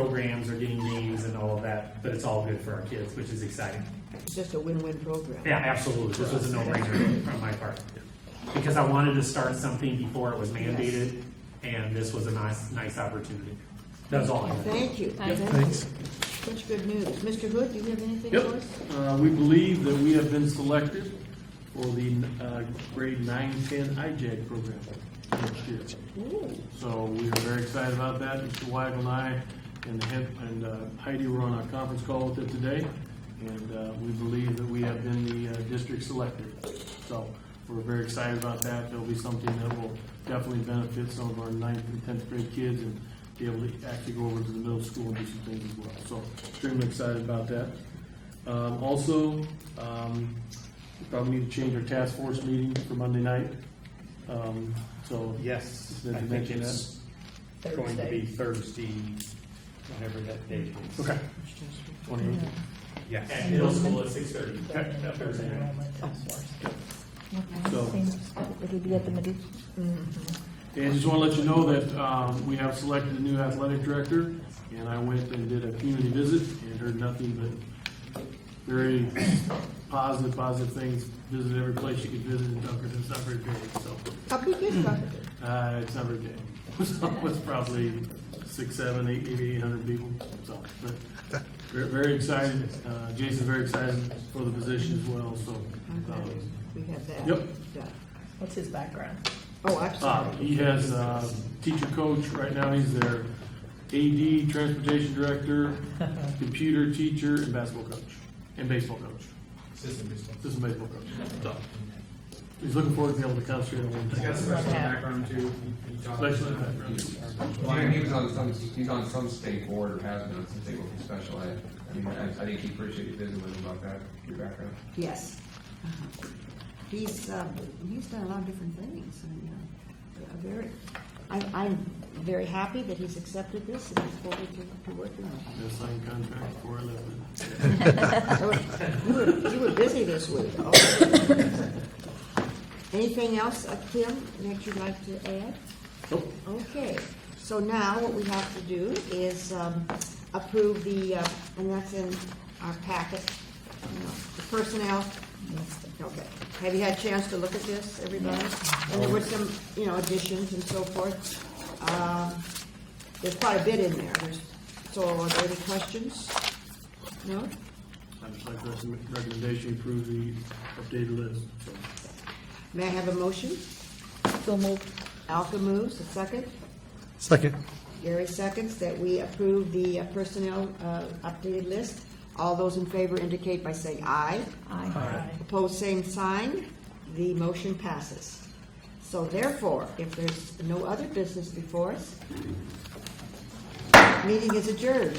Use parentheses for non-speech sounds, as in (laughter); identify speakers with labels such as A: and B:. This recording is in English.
A: programs are getting names and all of that, but it's all good for our kids, which is exciting.
B: It's just a win-win program.
A: Yeah, absolutely. This was a no-brainer on my part. Because I wanted to start something before it was mandated, and this was a nice, nice opportunity. That's all I had.
B: Thank you.
C: Thank you.
B: Thanks. Such good news. Mr. Hood, do you have anything
D: Yep.
B: for us?
D: Uh, We believe that we have been selected for the uh, grade 910 IJAG program next year.
B: Ooh,
D: So we are very excited about that. Mr. Weigel and I and Hen- and uh, Heidi were on a conference call with it today, and uh, we believe that we have been the uh, district selected. So we're very excited about that. That'll be something that will definitely benefit some of our ninth and 10th grade kids and be able to actually go over to the middle school and do some things as well. So extremely excited about that. Um, Also, um, we probably need to change our task force meeting for Monday night. Um, So
E: Yes,
D: Did
E: I
D: you
E: think
D: mention
E: it's going to be
B: Thursday.
E: Thursday, whatever that date is.
D: Okay. Twenty.
A: At
E: Yes.
A: middle school at six thirty.
D: Okay. So-
F: It'll be at the middle.
B: Mm-hmm.
D: And just want to let you know that um, we have selected a new athletic director, and I went and did a community visit and heard nothing but very positive, positive things. Visited every place you could visit in Dunkerton, it's not very big, so,
B: How big is that?
D: uh, it's not very big. (laughs) So It's probably six, seven, eight, maybe eight hundred people, so, but very, very excited. Uh, Jason's very excited for the position as well, so.
B: I'm glad
D: um,
B: We have that.
D: Yep.
B: Yeah.
C: What's his background?
B: Oh, I'm
D: Uh,
B: sorry.
D: He has uh, teacher coach, right now he's their AD, transportation director, computer teacher, and basketball coach, and baseball coach, assistant baseball coach. So, He's looking forward to being able to concentrate on one
G: He's got a
D: thing.
G: special background too. He taught-
D: Special ed background.
H: Well, and he was on some, he's on some state board or has been on some state board for special ed. I mean, I, I think he appreciated you visiting with him about that, your background.
B: Yes. Uh-huh. He's, uh, he's done a lot of different things, and, uh, yeah, very, I'm, I'm very happy that he's accepted this and look forward to, to working with him.
D: He'll sign contract before I leave.
B: You were, you were busy this week. Oh. Anything else, uh, Kim, that you'd like to add?
D: Nope.
B: Okay, so now what we have to do is um, approve the, uh, and that's in our packet, uh, the personnel. Okay, have you had a chance to look at this, everybody? And there were some, you know, additions and so forth. Um, There's quite a bit in there, There's- so are there any questions? No?
D: I'd just like to recommend- recommendation, to approve the updated list. So,
B: May I have a motion?
F: So moved.
B: Alka moves, a second.
I: Second.
B: Gary seconds that we approve the uh, personnel uh, updated list. All those in favor indicate by saying aye.
C: Aye.
B: Opposed, same sign. The motion passes. So therefore, if there's no other business before us, meeting is adjourned.